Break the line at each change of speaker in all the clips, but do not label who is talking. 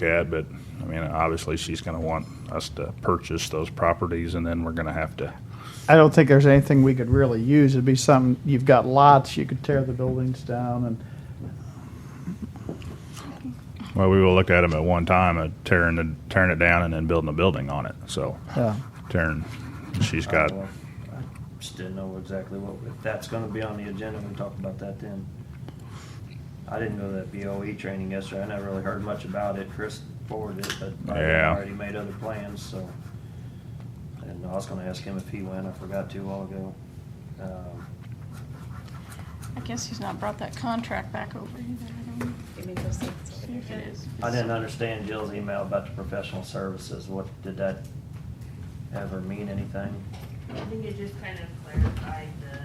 looked at, but I mean, obviously she's gonna want us to purchase those properties and then we're gonna have to,
I don't think there's anything we could really use. It'd be something, you've got lots, you could tear the buildings down and,
well, we will look at them at one time, uh, tearing, the- tearing it down and then building a building on it, so.
yeah.
Tearing, she's got,
Uh, Well, I Just didn't know exactly what, if that's gonna be on the agenda, we talk about that then. I didn't go to that BOE training yesterday, I never really heard much about it, Chris forwarded it, but I
Yeah.
already made other plans, so. And I was gonna ask him if he went, I forgot to a while ago. Um,
I guess he's not brought that contract back over either. I don't know.
You mean those things?
See if it is.
I didn't understand Jill's email about the professional services, what, did that ever mean anything?
I think it just kind of clarified the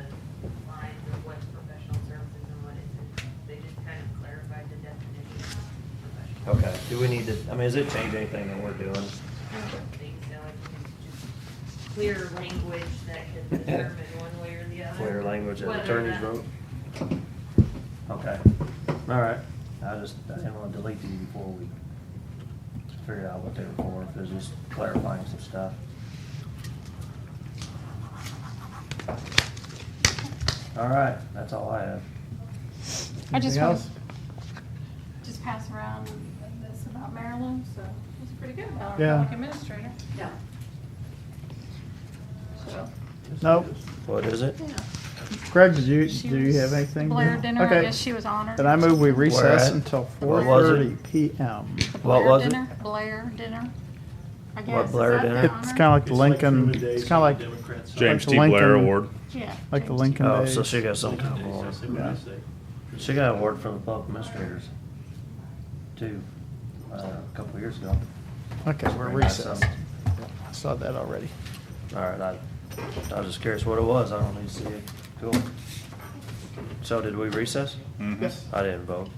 lines of what's professional services and what isn't. They just kind of clarified the definition of professional.
Okay, do we need to, I mean, does it change anything that we're doing?
I don't think so, I think it's just clear language that can determine one way or the other.
Clear language that
Whether
attorneys
that-
wrote? Okay, all right. I just, I didn't want to delete these before we figured out what they were for, if it was just clarifying some stuff. All right, that's all I have.
I just
Anything
want
else?
just pass around this about Marilyn, so it's pretty good about
Yeah.
her, like administrator.
No.
So,
Nope.
What is it?
yeah.
Blair, did you,
She
do you
was-
have anything?
Blair dinner, I
Okay.
guess she was honored.
Then I move we recess
at?
until four
Where was
thirty
it?
PM.
What
Blair
was it?
dinner, Blair dinner. I guess. Is
Blair
that the
dinner?
It's
honor?
kinda like the
It's like
Lincoln,
Truman Days
it's
on
kinda like,
the Democrat side.
James
the
T. Blair
Lincoln-
Award.
Yeah.
like the
James.
Lincoln
Oh,
days.
so she got some
Lincoln
kind of
Days, I
award.
say what I say.
She got an award from the public administrators, too, uh, a couple years ago.
Okay, we're
Very nice,
recessed.
um,
I saw that already.
All right, I, I was just curious what it was, I don't need to see it, cool.
Hmm.
So did we recess?
Mhm.
I didn't vote.